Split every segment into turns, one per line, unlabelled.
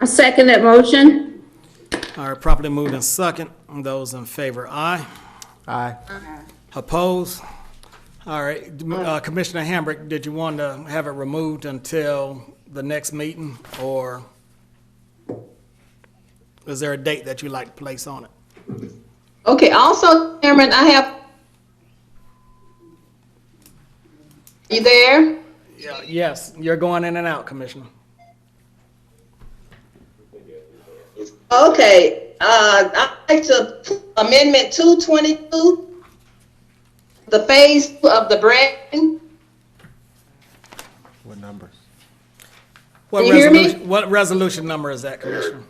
I second that motion.
All right, properly moved and second. Those in favor, aye.
Aye.
Opposed? All right, uh, Commissioner Hambrick, did you want to have it removed until the next meeting, or is there a date that you'd like to place on it?
Okay, also, Chairman, I have. You there?
Yeah, Yes, you're going in and out, Commissioner.
Okay, uh, I'd like to amendment two twenty-two. The phase of the Brandon,
What number?
What
you hear me?
resolution- What resolution number is that, Commissioner?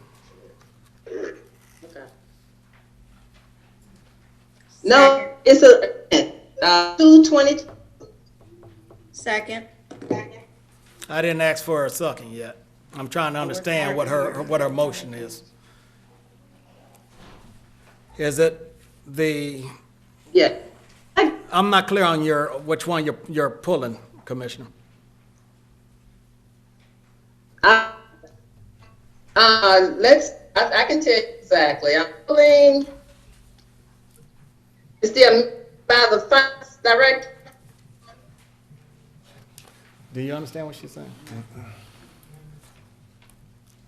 no, it's a, uh, two twenty,
Second.
I didn't ask for a second yet. I'm trying to understand what her, what her motion is. Is it the,
yeah. I-
I'm not clear on your, which one you're, you're pulling, Commissioner.
I- Uh, let's, I, I can tell you exactly, I'm pulling. It's the, by the finance director,
Do you understand what she's saying?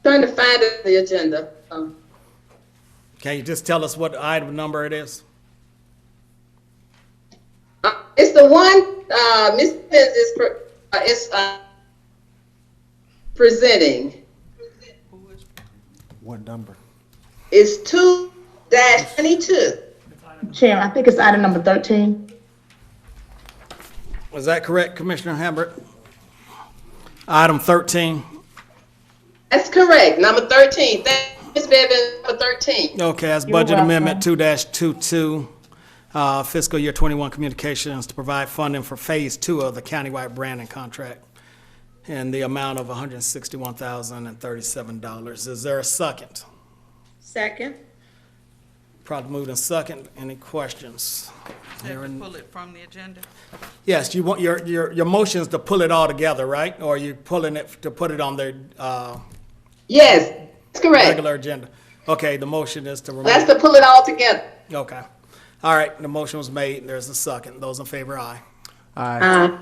trying to find it in the agenda, um.
Can you just tell us what item number it is?
Uh, It's the one, uh, Ms. Pence is, pre- uh, is, uh, presenting.
What number?
It's two dash twenty-two.
Chairman, I think it's item number 13.
Is that correct, Commissioner Hambrick? Item 13.
That's correct, number thirteen. Thank you, Ms. Bevin, for thirteen.
Okay, as
You're
Budget Amendment
welcome.
2-22, uh, fiscal year 21 communications to provide funding for Phase 2 of the countywide branding contract and the amount of $161,037. Is there a second?
Second.
Probably moved in second. Any questions?
Have to
Hearing-
pull it from the agenda.
Yes, you want, your, your, your motion is to pull it all together, right? Or you pulling it to put it on their uh,
Yes, that's correct.
regular agenda? Okay, the motion is to remove.
That's to pull it all together.
Okay. All right, the motion was made. There's a second. Those in favor, aye.
Aye.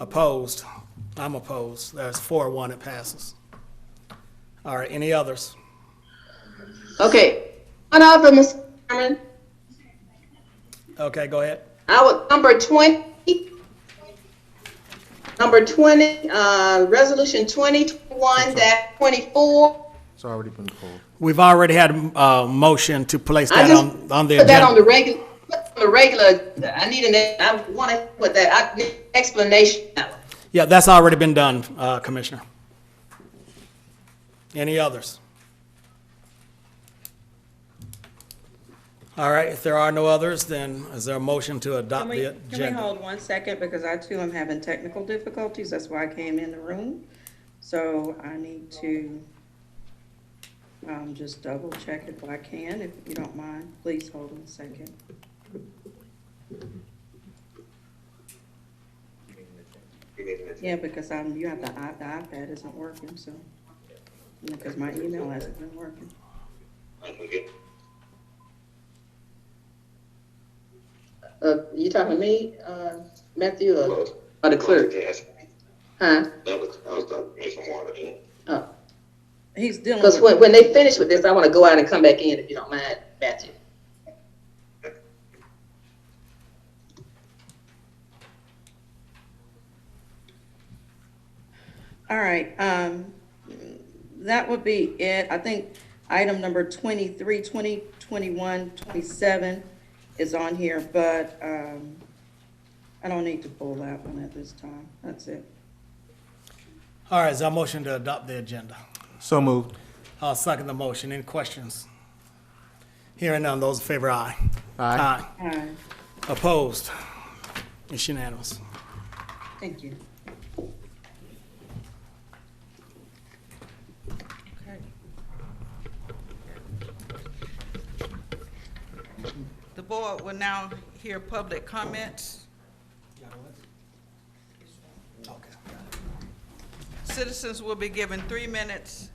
Opposed? I'm opposed. There's four, one, it passes. All right, any others?
Okay. One of them, Mr. Chairman,
Okay, go ahead.
I would, number twenty. Number twenty, uh, resolution twenty-one dash twenty-four.
It's already been pulled.
We've already had a motion to place
I
that
just
on, on the
put that on the
agenda.
regular, the regular, I need an, I want to put that, I need explanation. Uh,
Yeah, that's already been done, uh, Commissioner. Any others? All right, if there are no others, then is there a motion to
Can
adopt
we,
the
can we
agenda?
hold one second, because I too am having technical difficulties, that's why I came in the room. So I need to, um, just double check if I can, if you don't mind, please hold on a second. Yeah, because I'm, you have the i- the iPad isn't working, so, because my email hasn't been working.
Uh, you talking to me, uh, Matthew, or, or the clerk? Huh? Oh,
He's dealing
cause
with,
when, when they finish with this, I want to go out and come back in, if you don't mind, Matthew.
all right, um, that would be it. I think item number 23, 20, 21, 27 is on here, but um, I don't need to pull that one at this time. That's it.
All right, is there a motion to adopt the agenda?
So moved.
I'll second the motion. Any questions? Hearing none, those in favor, aye.
Aye.
All right,
Opposed? It's unanimous.
thank you.
The board will now hear public comments. Citizens will be given three minutes